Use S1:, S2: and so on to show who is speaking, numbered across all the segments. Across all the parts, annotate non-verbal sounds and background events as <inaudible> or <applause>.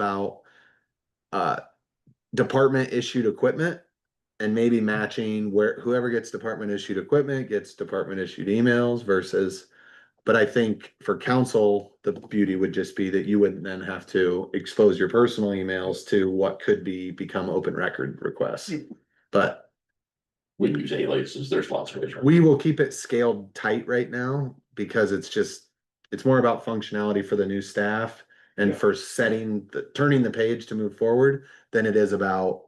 S1: about uh, department issued equipment and maybe matching where whoever gets department issued equipment gets department issued emails versus. But I think for council, the beauty would just be that you wouldn't then have to expose your personal emails to what could be become open record requests. But
S2: We use aliases, there's lots of ways. around
S1: we will keep it scaled tight right now because it's just, it's more about functionality for the new staff and for setting, the turning the page to move forward than it is about,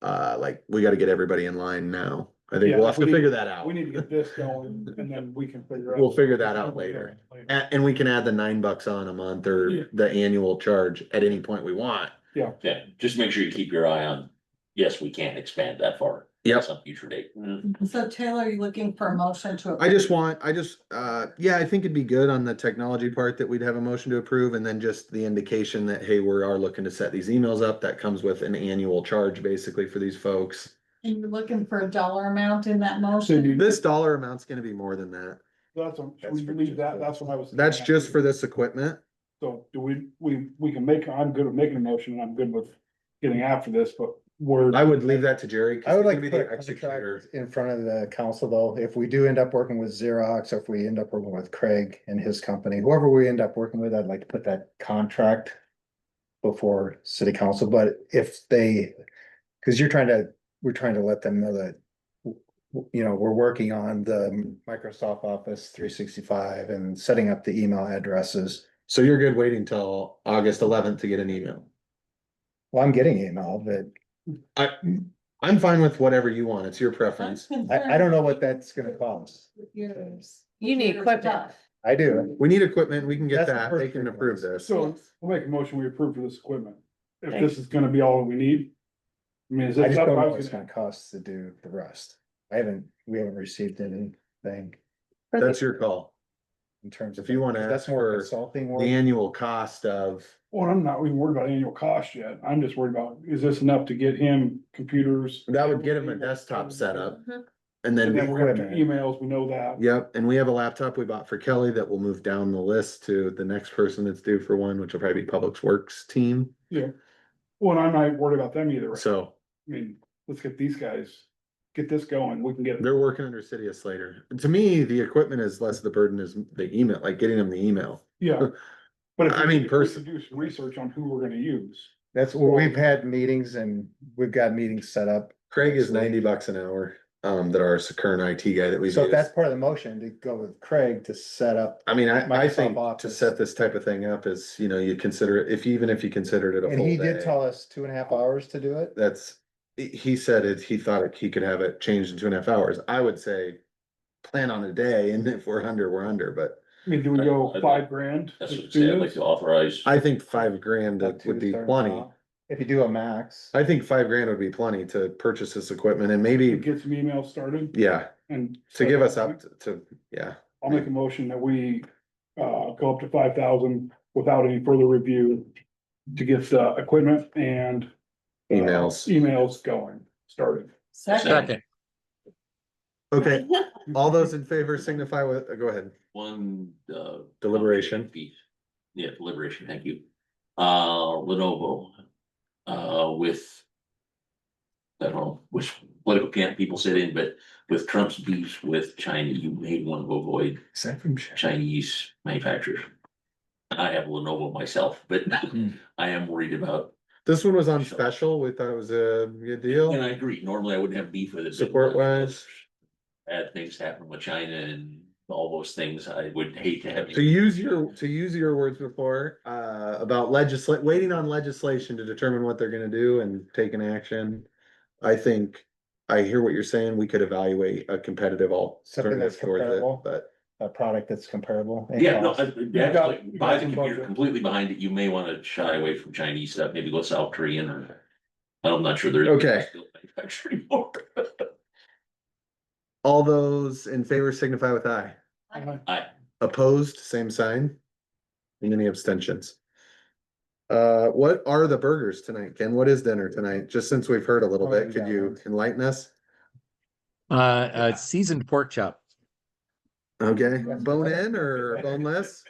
S1: uh, like, we gotta get everybody in line now. I think
S3: Yeah,
S1: we'll have to
S3: we need-
S1: figure that out.
S3: We need to get this going and then we can figure out.
S1: We'll figure that out later. And, and we can add the nine bucks on a month
S3: Yeah.
S1: or the annual charge at any point we want.
S2: it. Yeah, just make sure you keep your eye on, yes, we can't expand that far.
S1: Yep.
S2: at Some future date.
S3: Mm-hmm.
S4: So Taylor, are you looking for a motion to?
S1: I just want, I just, uh, yeah, I think it'd be good on the technology part that we'd have a motion to approve and then just the indication that, hey, we are looking to set these emails up. That comes with an annual charge basically for these folks.
S4: And you're looking for a dollar amount in that
S3: So
S4: motion?
S3: you,
S1: This dollar amount's gonna be more than that.
S3: that's, a- we leave that, that's what I was.
S1: That's just for this equipment.
S3: So do we, we, we can make, I'm good with making a motion and I'm good with getting after this, but we're.
S1: I would leave that to Jerry. 'cause
S5: I would
S1: he's
S5: like
S1: gonna
S5: to
S1: be
S5: put
S1: the
S5: a
S1: executor.
S5: contract in front of the council though, if we do end up working with Xerox, or if we end up working with Craig and his company, whoever we end up working with, I'd like to put that contract. Before city council, but if they, cause you're trying to, we're trying to let them know that. You know, we're working on the Microsoft Office three sixty-five and setting up the email addresses.
S1: So you're good waiting till August eleventh to get an email.
S5: Well, I'm getting email, but
S1: I, I'm fine with whatever you want. It's your
S4: I'm
S1: preference.
S4: concerned
S5: I, I don't know what that's gonna cost.
S4: with yours.
S6: You need
S4: Your
S6: equipment.
S4: stuff.
S5: I do.
S1: We need equipment. We can get
S5: That's the
S1: that. They
S5: first
S1: can
S5: thing.
S1: approve this.
S3: So we'll make a motion, we approve for this equipment. If
S6: Thanks.
S3: this is gonna be all we need. I mean, is
S5: I
S3: that
S5: just
S3: that's
S5: don't
S3: what I
S5: know what
S3: was
S5: it's
S3: gonna,
S5: gonna cost to do the rest. I haven't, we haven't received anything
S1: That's your call.
S5: in terms of.
S1: If you wanna ask
S5: That's more
S1: for
S5: consulting
S1: The
S5: work.
S1: annual cost of
S3: well, I'm not even worried about annual cost yet. I'm just worried about, is this enough to get him computers?
S1: That would get him a desktop setup and
S3: And then
S1: then,
S3: we're gonna have to
S5: Equipment.
S3: emails, we know that.
S1: yep, and we have a laptop we bought for Kelly that will move down the list to the next person that's due for one, which will probably be Public Works team.
S3: Well, and I'm not worried about them either. I
S1: So
S3: mean, let's get these guys, get this going. We can get,
S1: they're working under City of Slater. To me, the equipment is less the burden is the email, like getting them the email.
S3: yeah. But if
S1: I
S3: we-
S1: mean,
S3: if we
S1: person-
S3: Do some research on who we're gonna use.
S5: That's where we've had meetings and we've got meetings set up.
S1: Craig is ninety bucks an hour, um, that our current IT guy that we
S5: So
S1: use.
S5: if that's part of the motion to go with Craig to set up.
S1: I mean, I, I
S5: Microsoft
S1: think to
S5: Office.
S1: set this type of thing up is, you know, you consider it, if, even if you considered it a
S5: And
S1: full
S5: he did
S1: day.
S5: tell us two and a half hours to do it.
S1: That's, he- he said it, he thought it- he could have it changed in two and a half hours. I would say plan on a day and if we're under, we're under, but
S3: I mean, do we go
S2: I'd like-
S3: five grand?
S2: That's what
S3: to
S2: I'm saying,
S3: do
S2: I'd like
S3: this?
S2: to authorize,
S1: I think five grand
S5: Up to
S1: would be
S5: thirty
S1: plenty.
S5: hours. If you do a max.
S1: I think five grand would be plenty to purchase this equipment and
S3: To
S1: maybe,
S3: Get some emails started
S1: yeah,
S3: and.
S1: to give us up to- to, yeah.
S3: I'll make a motion that we, uh, go up to five thousand without any further review to get the equipment and. uh,
S1: Emails.
S3: Emails going, started.
S4: Second.
S1: Okay,
S4: <laughs>
S1: all those in favor signify with, go ahead.
S2: one, uh.
S1: Deliberation.
S2: Piece. Yeah, deliberation, thank you. Uh, Lenovo, uh, with. I don't know which political camp people sit in, but with Trump's beef with China, you may want to avoid
S5: Is that from?
S2: Chinese manufacturers. I have Lenovo myself, but
S1: Hmm.
S2: I am worried about,
S1: This one was on special. We thought it was a good deal.
S2: and I agree, normally I wouldn't have beef with it. but-
S1: Support wise.
S2: Bad things happen with China and all those things, I would hate to have.
S1: To use your, to use your words before, uh, about legislate, waiting on legislation to determine what they're gonna do and take an action. I think, I hear what you're saying, we could evaluate a competitive
S5: Something
S1: alternative
S5: that's
S1: towards it,
S5: comparable.
S1: but.
S5: A product that's comparable. in
S2: Yeah, no,
S5: cost.
S2: I-
S3: got-
S2: actually,
S3: you
S2: buy
S3: got
S2: the
S3: some
S2: computer
S3: budget.
S2: completely behind it, you may wanna shy away from Chinese stuff, maybe go South Korean or. I'm not sure they're. <laughs>
S1: Okay.
S2: still manufacturing more.
S1: All those in favor signify with aye.
S2: I,
S1: Opposed, same sign. And any abstentions? Uh, what are the burgers tonight, Ken? What is dinner tonight? Just since we've heard a little
S5: Oh,
S1: bit,
S5: you
S1: could
S5: got
S1: you
S5: one.
S1: enlighten us?
S7: Uh, uh, seasoned pork chop.
S1: Okay, bone in
S5: <laughs>
S1: or boneless?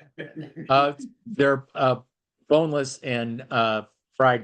S7: Uh, they're, uh, boneless and, uh, fried